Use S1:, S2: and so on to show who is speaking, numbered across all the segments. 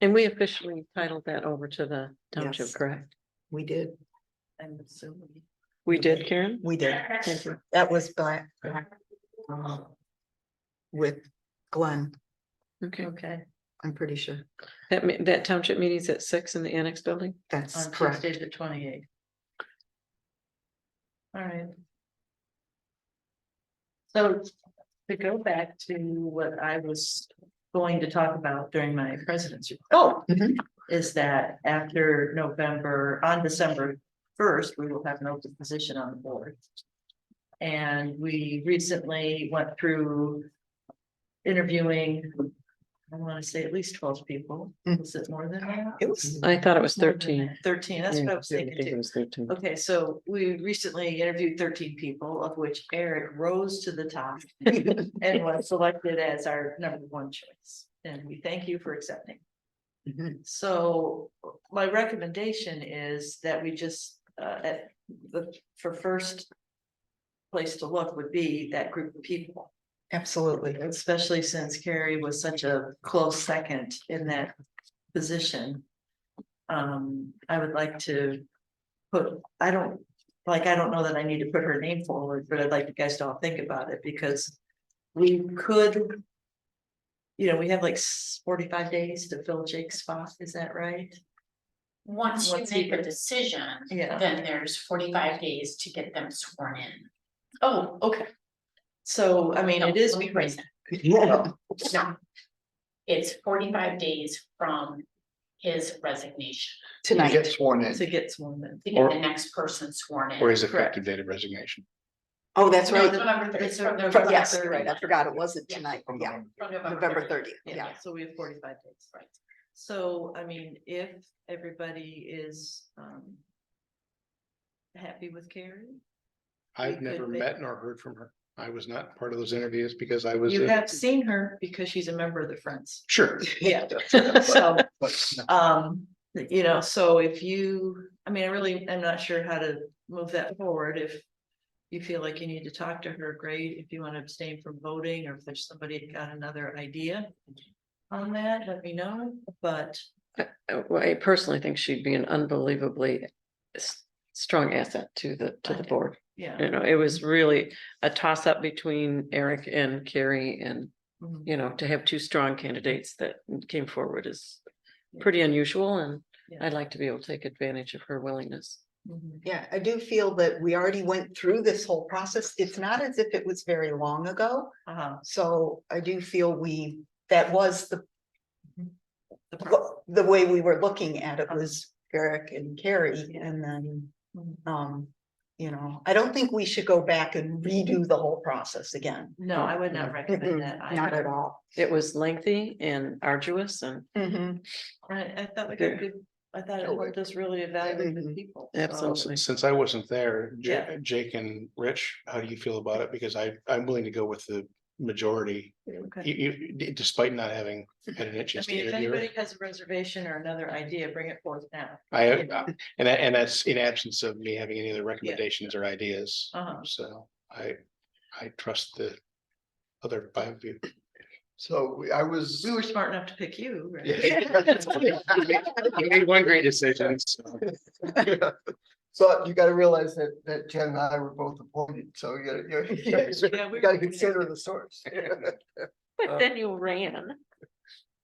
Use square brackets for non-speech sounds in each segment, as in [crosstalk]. S1: And we officially titled that over to the township,
S2: Yes.
S1: correct?
S2: We did. I'm assuming.
S1: We did, Karen?
S2: We did.
S1: Thank you.
S2: That was black. um, With Glenn,
S1: Okay,
S3: Okay.
S2: I'm pretty sure.
S1: that, me- that township meeting's at six in the annex building?
S2: That's
S3: On
S2: correct.
S3: Tuesday, the twenty eighth. All right. So to go back to what I was going to talk about during my presidency. Oh.
S2: Mhm.
S3: Is that after November, on December first, we will have an open position on the board. And we recently went through interviewing, I want to say at least twelve people.
S2: Mm.
S3: Is it more than that?
S2: It was,
S1: I thought it was thirteen.
S3: Thirteen, that's what I was
S1: Yeah,
S3: thinking
S1: it
S3: too.
S1: was 13.
S3: Okay, so we recently interviewed thirteen people, of which Eric rose to
S1: [laughs]
S3: the top [laughs] and was selected as our number one choice. And we thank you for accepting.
S2: Mhm.
S3: So my recommendation is that we just, uh, at the, for first place to look would be that group of people,
S2: absolutely.
S3: especially since Carrie was such a close second in that position. Um, I would like to put, I don't, like, I don't know that I need to put her name forward, but I'd like you guys to all think about it because we could. You know, we have like s- forty-five days to fill Jake's spot, is that right?
S4: Once you
S3: Once you
S4: make a
S3: get-
S4: decision,
S3: Yeah.
S4: then there's forty-five days to get them sworn in.
S3: Oh, okay. So, I mean,
S4: No,
S3: it is.
S4: let me rephrase that.
S2: Yeah.
S4: No. It's forty-five days from his resignation
S5: You
S2: Tonight,
S5: get sworn
S3: To
S5: in,
S3: get sworn in.
S4: to get the
S5: Or-
S4: next person sworn in.
S5: or his
S3: Correct.
S5: effective date of resignation.
S2: oh, that's
S4: No,
S2: right.
S4: November third,
S3: It's
S4: from
S3: November
S4: November
S2: From- Yes, you're
S4: 30.
S2: right. I forgot it wasn't
S4: Yeah.
S2: tonight. Yeah,
S4: From
S2: November
S4: 30.
S2: thirtieth, yeah.
S3: So we have forty-five days.
S4: Right.
S3: So, I mean, if everybody is, um. Happy with Carrie,
S5: I've
S3: could
S5: never
S3: make-
S5: met nor heard from her. I was not part of those interviews because I was.
S3: you
S5: a-
S3: have seen her because she's a member of the Friends. [laughs]
S5: Sure.
S3: Yeah. So,
S5: [laughs]
S3: [laughs]
S5: But no,
S3: um, you know, so if you, I mean, I really, I'm not sure how to move that forward if. You feel like you need to talk to her, great, if you want to abstain from voting, or if there's somebody that got another idea. On that, let me know, but
S1: Uh, well, I personally think she'd be an unbelievably s- strong asset to the, to the
S3: Okay.
S1: board.
S3: yeah.
S1: You know, it was really a toss up between Eric and Carrie and,
S3: mhm.
S1: you know, to have two strong candidates that came forward is
S3: Yeah.
S1: pretty unusual and
S3: Yeah.
S1: I'd like to be able to take advantage of her willingness.
S3: Mhm.
S2: Yeah, I do feel that we already went through this whole process. It's not as if it was very long ago.
S3: Uh-huh.
S2: So I do feel we, that was the,
S3: The pro-
S2: what- the way we were looking at it was Eric and Carrie and then, um, you know, I don't think we should go back and redo the whole process again.
S3: No, I would not recommend that.
S2: Mm-mm, Mm-hmm. Not at
S3: either.
S2: all.
S1: It was lengthy and arduous and
S2: Mhm.
S3: I, I thought we got
S1: Yeah.
S3: good, I thought it helped us really evaluate the
S2: Mhm.
S3: people. Oh, so-
S1: absolutely.
S5: Since since I wasn't there,
S3: Yeah.
S5: Ja- Jake and Rich, how do you feel about it? Because I, I'm willing to go with the majority.
S3: Okay.
S5: You, you, d- despite not having had an
S3: I
S5: itch to
S3: mean, if anybody
S5: interview.
S3: has a reservation or another idea, bring it forth now.
S5: I, I- and that, and that's in absence of me having any other recommendations or ideas.
S3: Uh-huh.
S5: So I, I trust the other five of you.
S6: So we- I was, [laughs]
S3: We were smart enough to pick you, right? [laughs]
S5: You made one great decision. so.
S6: so you gotta realize that, that Jen and I were both appointed, so you gotta, [laughs] you gotta-
S3: Yeah, we
S6: you gotta
S3: were-
S6: consider the source.
S1: But then you ran.
S6: [laughs]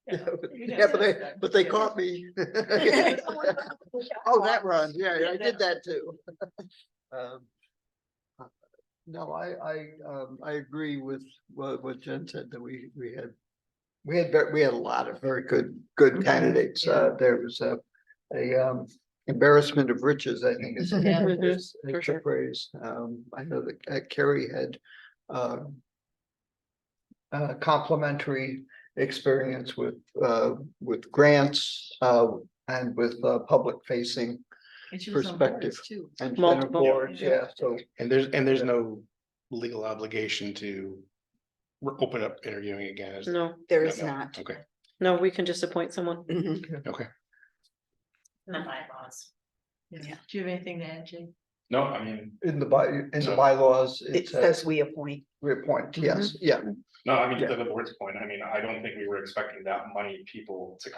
S6: Yeah, but they, [laughs] but they caught [laughs] me. Oh, that run, yeah, yeah, I did that too. [laughs] Um, uh, No, I, I, um, I agree with what, what Jen said, that we, we had, we had, ver- we had a lot of very good, good candidates, uh, there was a, a, um, embarrassment of riches, I think [laughs] is.
S3: Yeah.
S1: Mhm.
S6: is-
S1: For
S6: is
S1: sure.
S6: the phrase, um, I know that uh, Carrie had, um. Uh, complimentary experience with, uh, with grants, uh, and with, uh, public facing
S3: And she was on boards, Too.
S6: and center
S1: Multiple.
S6: boards, yeah, so.
S5: And there's, and there's
S6: Yeah.
S5: no legal obligation to re- open up interviewing again. is-
S1: No,
S2: There
S5: no,
S2: is
S5: no.
S2: not.
S5: Okay,
S1: no, we can just appoint someone.
S2: Mhm.
S5: okay.
S4: In the bylaws.
S3: Yeah. Do you have anything to add, Jake?
S5: No, I mean.
S6: In the by, in the
S5: So-
S6: bylaws,
S2: It
S6: it says Mm-hmm.
S2: says we appoint.
S6: reappoint, yes, yeah.
S7: No, Uh, I mean,
S6: Yeah.
S7: to the board's point, I mean, I don't think we were expecting that many people to